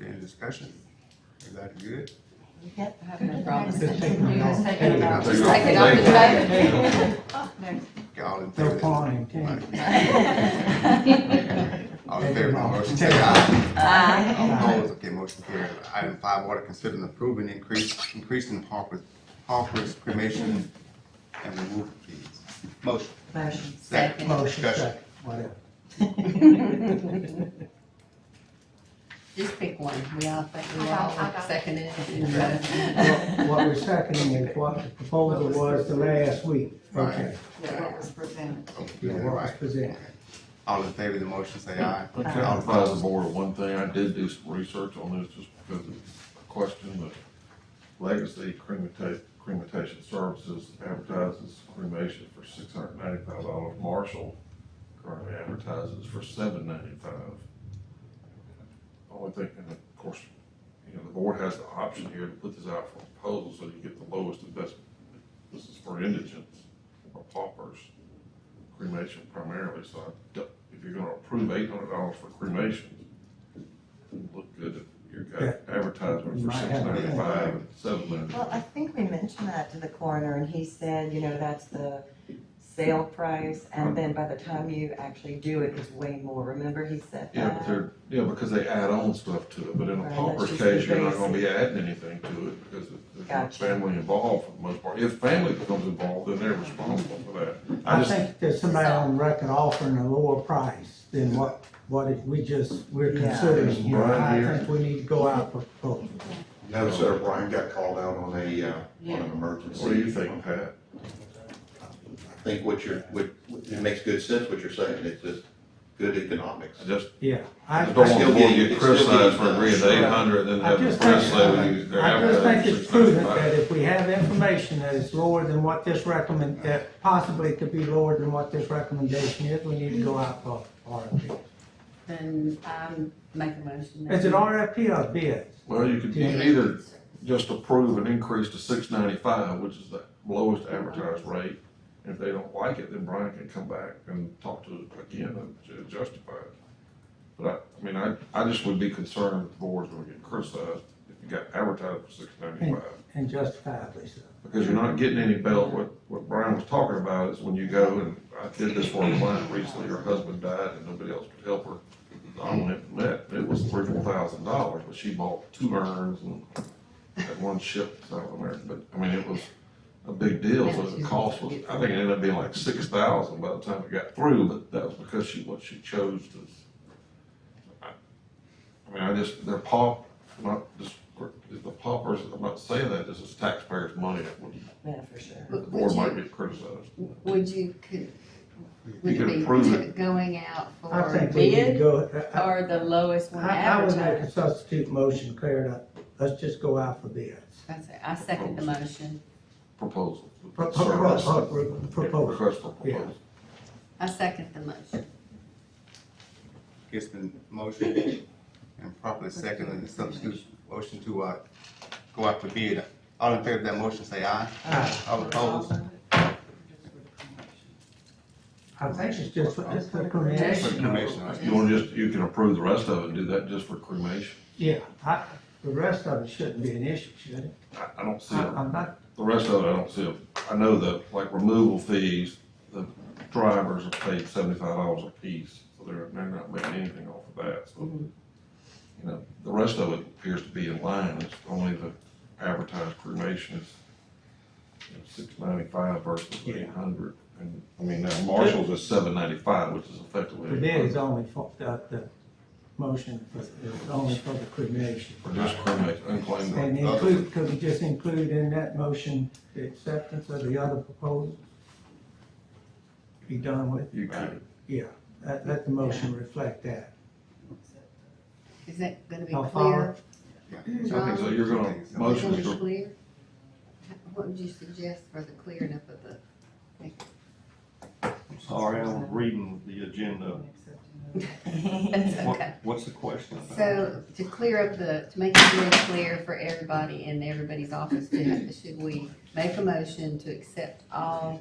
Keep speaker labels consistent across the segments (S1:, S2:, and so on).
S1: any discussion? Is that good?
S2: Yep, I have no problem.
S3: You was thinking about
S1: There you
S3: just
S1: go.
S3: taking off his
S1: There
S3: back.
S1: All in
S4: No
S1: favor?
S4: pawn in king.
S1: All in favor of the motion, say aye.
S3: Aye.
S1: All opposed, okay, motion carries. Item five, order considering approving increase, increase in Harper's, Harper's cremation and removal fees. Motion.
S2: Motion,
S1: Second.
S2: second.
S4: Motion,
S1: Discussion.
S4: second, whatever.
S2: Just pick one, we all think we
S3: I got- I
S2: all
S3: got-
S2: second it.
S4: What what we're seconding is what the proposal was the last week. Okay.
S3: That what was presented.
S4: Yeah,
S1: Okay,
S4: what was
S1: right.
S4: presented.
S1: All in favor of the motion, say aye. All
S5: Can I advise the
S1: opposed,
S5: board of one thing? I did do some research on this just because it's a question of legacy cremation, cremation services advertises cremation for six hundred ninety-five dollars. Marshall currently advertises for seven ninety-five. Only thing, and of course, you know, the board has the option here to put this out for proposal so you get the lowest and best. This is for indigents or paupers cremation primarily, so I don't- if you're gonna approve eight hundred dollars for cremation, it'd look good if you got advertisement
S4: You
S5: for
S4: might
S5: six
S4: have a-
S5: ninety-five and seven
S6: Well, I
S5: ninety-five.
S6: think we mentioned that to the coroner, and he said, you know, that's the sale price, and then by the time you actually do it, it's way more, remember he said
S5: Yeah, but
S6: that?
S5: they're, yeah, because they add on stuff to it, but in
S6: Right,
S5: a
S6: that's
S5: pauper's
S6: just the
S5: case, you're not
S6: basic.
S5: gonna be adding anything to it because it- there's not
S6: Gotcha.
S5: family involved for the most part. If family becomes involved, then they're responsible for that. I
S4: I
S5: just,
S4: think there's somebody on record offering a lower price than what, what it- we just, we're
S6: Yeah.
S4: considering
S5: There's
S4: here.
S5: Brian
S4: I
S5: here.
S4: think we need to go out for proposal.
S7: No, sir, Brian got called out on a, uh, on an emergency.
S5: what do you think, Pat?
S7: I think what you're, what, it makes good sense what you're saying, it's just good economics.
S5: I just,
S4: Yeah.
S5: I
S4: I,
S5: just don't want
S4: I
S5: the
S7: still
S5: board to
S7: getting-
S5: get
S7: it's still
S5: criticized for
S7: getting
S5: agreeing to
S7: done.
S5: eight hundred and then
S4: I
S5: have the
S4: just
S5: press
S4: think-
S5: say we- they're
S4: I just think
S5: advertising
S4: it's
S5: for
S4: prudent
S5: 695.
S4: that if we have information that is lower than what this recommend, that possibly could be lower than what this recommendation is, we need to go out for RFP.
S2: Then I'm making a motion.
S4: Is it RFP or bids?
S5: Well, you could you could either just approve an increase to six ninety-five, which is the lowest advertised rate. And If they don't like it, then Brian can come back and talk to it again and ju- justify it. But I, I mean, I, I just would be concerned if the board's gonna get criticized if you got advertised for six ninety-five.
S4: And justifiably so.
S5: Because you're not getting any belt. What, what Brian was talking about is when you go, and I did this for a client recently, her husband died and nobody else could help her. I went and met, it was three, four thousand dollars, but she bought two urns and that one ship out of there. But, I mean, it was a big deal, so the cost was, I think it ended up being like six thousand by the time it got through, but that was because she, what she chose to. I I mean, I just, they're pau, not, just, the paupers, I'm not saying that, this is taxpayers' money that would
S6: Yeah, for sure.
S5: the board might get criticized.
S2: Would you, could, would
S5: You
S2: it
S5: can
S2: be
S5: approve
S2: to-
S5: it.
S2: going out
S4: I
S2: for
S4: think we need to
S2: bid
S4: go, I- I-
S2: or the lowest one
S4: I, I would make a
S2: advertised?
S4: substitute motion, clear it up. Let's just go out for bids.
S2: I say- I second the motion.
S5: Proposal.
S4: Pro- pro- pro-
S5: Service.
S4: pro- pro- Proposal.
S5: Request for proposal.
S2: I second the motion.
S1: it's been motioned and properly seconded, and substitute motion to, uh, go out for bid. All in favor of that motion, say aye.
S4: Aye.
S1: All opposed,
S4: I think it's just, for- it's for cremation.
S1: for cremation, all right.
S5: You want to just, you can approve the rest of it and do that just for cremation?
S4: Yeah, I, the rest of it shouldn't be an issue, should it?
S5: I, I don't see,
S4: I,
S5: a-
S4: I'm not,
S5: the rest of it, I don't see, a- I know the, like, removal fees, the drivers are paid seventy-five dollars a piece, so they're, they're not making anything off of that, so.
S4: Mm-hmm.
S5: You know, the rest of it appears to be in line, it's only the advertised cremation is six ninety-five versus
S4: Yeah.
S5: eight hundred. And, I mean, now Marshall's is seven ninety-five, which is
S4: the
S5: effectively.
S4: bid is only for, the, the motion is is only for the cremation.
S5: Or just cremate, unclaimed.
S4: And include, could we just include in that motion the acceptance of the other proposal? Be done with,
S5: You could,
S4: yeah, let, let the motion reflect that.
S2: Is that gonna be
S4: How
S2: clear?
S4: far?
S1: Yeah.
S5: I think so,
S2: John,
S5: you're gonna
S2: is it
S5: motion
S2: gonna
S5: to
S2: be clear? What would you suggest for the clearing up of the?
S8: Sorry, I was reading the agenda.
S2: That's
S8: What-
S2: okay.
S8: What's the question about?
S2: So to clear up the, to make it really clear for everybody in everybody's office, do- should we make a motion to accept all,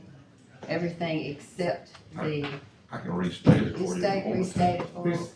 S2: everything except the
S5: I can restate it for you. if you
S2: state
S5: want me to.
S2: restated form?
S4: Chris,